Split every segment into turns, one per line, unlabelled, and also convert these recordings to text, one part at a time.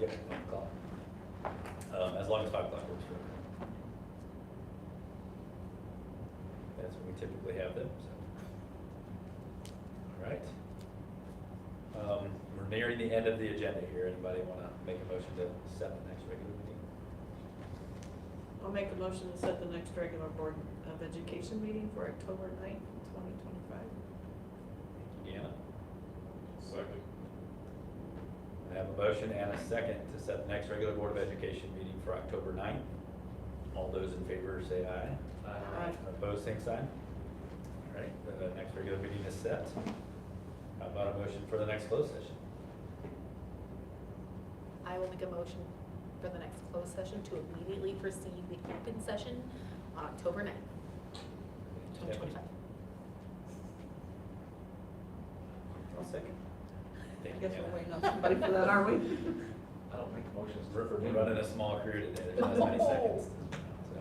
Yep, five o'clock. Um, as long as five o'clock works for everyone. That's when we typically have them, so. All right. Um, we're nearing the end of the agenda here. Anybody wanna make a motion to set the next regular meeting?
I'll make a motion to set the next regular Board of Education meeting for October ninth, twenty twenty-five.
Thank you, Deanna.
Second.
I have a motion and a second to set the next regular Board of Education meeting for October 9th. All those in favor say aye.
Aye.
Opposed, same sign. All right, the next regular meeting is set. How about a motion for the next closed session?
I will make a motion for the next closed session to immediately precede the open session on October ninth, twenty
Stephanie?
twenty-five.
I'll second.
I
Thank you,
guess we're
Hannah.
waiting on somebody for that, are we?
I don't make motions.
We're we're running a small crew today, there's not as many seconds. So,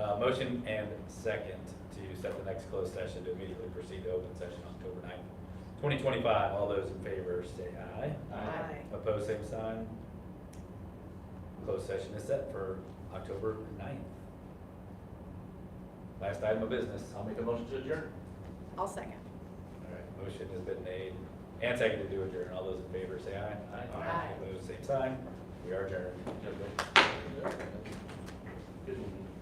Uh, motion and second to set the next closed session to immediately proceed to open session October 9th, twenty twenty-five. All those in favor say aye.
Aye.
Opposed, same sign. Closed session is set for October 9th. Last item of business.
I'll make a motion to adjourn.
I'll second.
All right, motion has been made and seconded to adjourn. All those in favor say aye.
Aye.
Aye.
Opposed, same sign. We are adjourned.
Good one.